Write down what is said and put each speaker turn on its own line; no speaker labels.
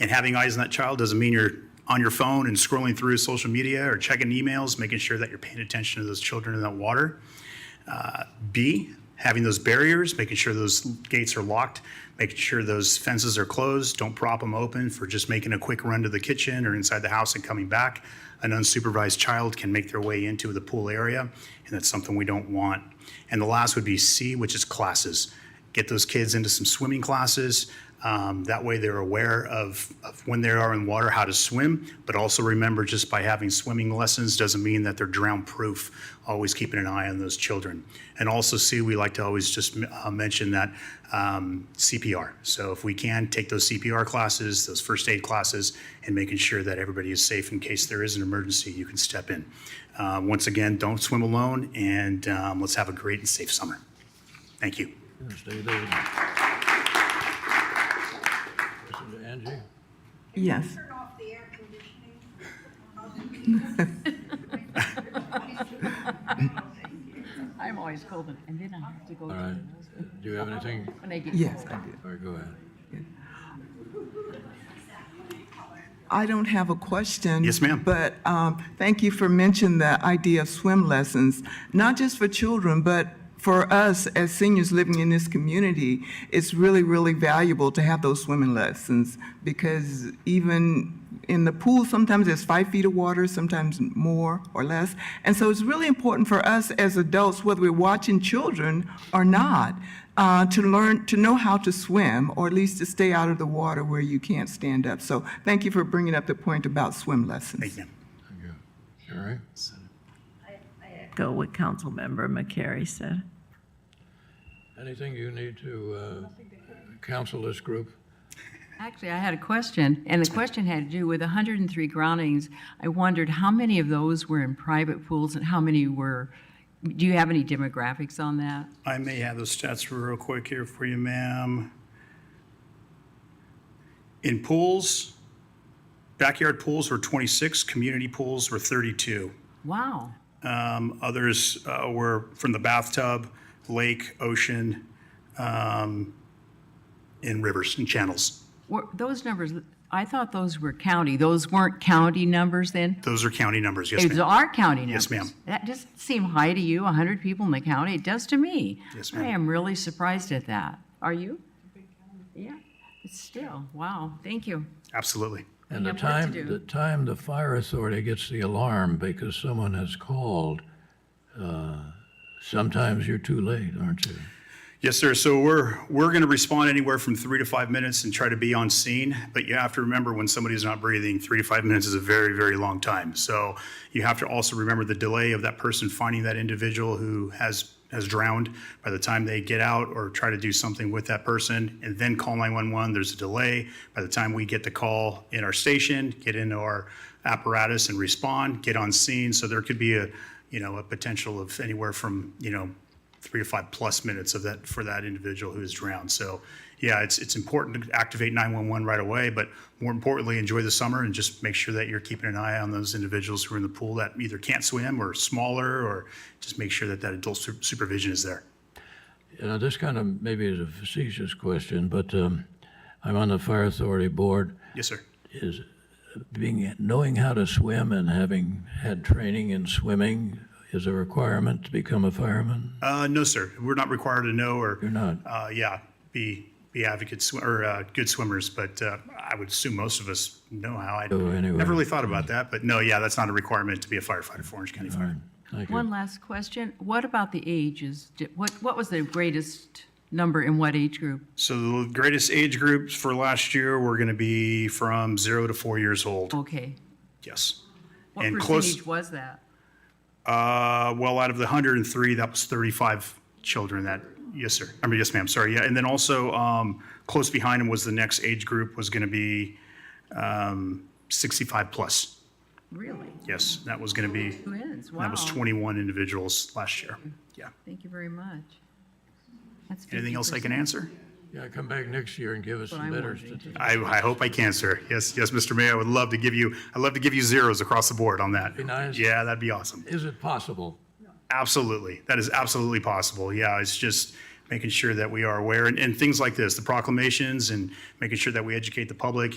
And having eyes on that child doesn't mean you're on your phone and scrolling through social media or checking emails, making sure that you're paying attention to those children in that water. Uh, B, having those barriers, making sure those gates are locked, making sure those fences are closed. Don't prop them open for just making a quick run to the kitchen or inside the house and coming back. An unsupervised child can make their way into the pool area, and that's something we don't want. And the last would be C, which is classes get those kids into some swimming classes. Um, that way, they're aware of, of when they are in water, how to swim. But also remember, just by having swimming lessons doesn't mean that they're drown proof. Always keeping an eye on those children. And also, see, we like to always just uh, mention that um, CPR. So, if we can, take those CPR classes, those first aid classes, and making sure that everybody is safe in case there is an emergency, you can step in. Uh, once again, don't swim alone, and um, let's have a great and safe summer. Thank you.
Stay there. Listen to Angie.
Yes.
Turn off the air conditioning.
I'm always cold, and then I have to go
All
to
right.
the
Do you have anything?
when they get
Yes,
cold.
I do.
All right, go ahead.
I don't have a question.
Yes, ma'am.
But um, thank you for mentioning the idea of swim lessons, not just for children, but for us as seniors living in this community. It's really, really valuable to have those swimming lessons because even in the pool, sometimes there's five feet of water, sometimes more or less. And so it's really important for us as adults, whether we're watching children or not, uh, to learn, to know how to swim, or at least to stay out of the water where you can't stand up. So thank you for bringing up the point about swim lessons.
Thank you, ma'am.
Thank you. Sherry?
echo what Councilmember McCary said.
Anything you need to uh, counsel this group?
Actually, I had a question, and the question had to do with 103 groundings. I wondered how many of those were in private pools and how many were, do you have any demographics on that?
I may have those stats real quick here for you, ma'am. In pools, backyard pools were 26, community pools were 32.
Wow.
Um, Others uh, were from the bathtub, lake, ocean, um, and rivers and channels.
Were, those numbers, I thought those were county. Those weren't county numbers then?
Those are county numbers, yes,
Those
ma'am.
are county numbers.
Yes, ma'am.
That doesn't seem high to you, 100 people in the county. It does to me.
Yes, ma'am.
I am really surprised at that. Are you? Yeah, it's still, wow, thank you.
Absolutely.
And the
have work to
time,
do.
the time the fire authority gets the alarm because someone has called, uh, sometimes you're too late, aren't you?
Yes, sir. So we're, we're going to respond anywhere from three to five minutes and try to be on scene. But you have to remember when somebody's not breathing, three to five minutes is a very, very long time. So you have to also remember the delay of that person finding that individual who has, has drowned by the time they get out or try to do something with that person and then call 911. There's a delay. By the time we get the call in our station, get into our apparatus and respond, get on scene. So there could be a, you know, a potential of anywhere from, you know, three to five plus minutes of that for that individual who is drowned. So, yeah, it's it's important to activate 911 right away, but more importantly, enjoy the summer and just make sure that you're keeping an eye on those individuals who are in the pool that either can't swim or smaller, or just make sure that that adult su- supervision is there.
You know, this kind of maybe is a facetious question, but um, I'm on the fire authority board.
Yes, sir.
is being knowing how to swim and having had training in swimming is a requirement to become a fireman.
Uh, no, sir. We're not required to know or
You're not.
uh, yeah, be be advocates sw- or uh, good swimmers, but uh, I would assume most of us know how. I
Oh, anyway.
never really thought about that, but no, yeah, that's not a requirement to be a firefighter for Orange County Fire.
Thank
One
you.
last question. What about the ages? Di- What, what was the greatest number in what age group?
So the greatest age groups for last year were going to be from zero to four years old.
Okay.
Yes.
What
And close-
percentage was that?
Uh, well, out of the 103, that was 35 children that, yes, sir. I mean, yes, ma'am, sorry. Yeah, and then also, um, close behind him was the next age group was going to be, um, 65 plus.
Really?
Yes, that was going to be,
Who is? Wow.
that was 21 individuals last year. Yeah.
Thank you very much. That's
Anything else I can
50%.
answer?
Yeah, come back next year and give us
What
some
I'm
better
wondering.
statistics.
I, I hope I can, sir. Yes, yes, Mr. Mayor, I would love to give you, I'd love to give you zeros across the board on that.
Be nice.
Yeah, that'd be awesome.
Is it possible?
Absolutely. That is absolutely possible. Yeah, it's just making sure that we are aware and, and things like this, the proclamations and making sure that we educate the public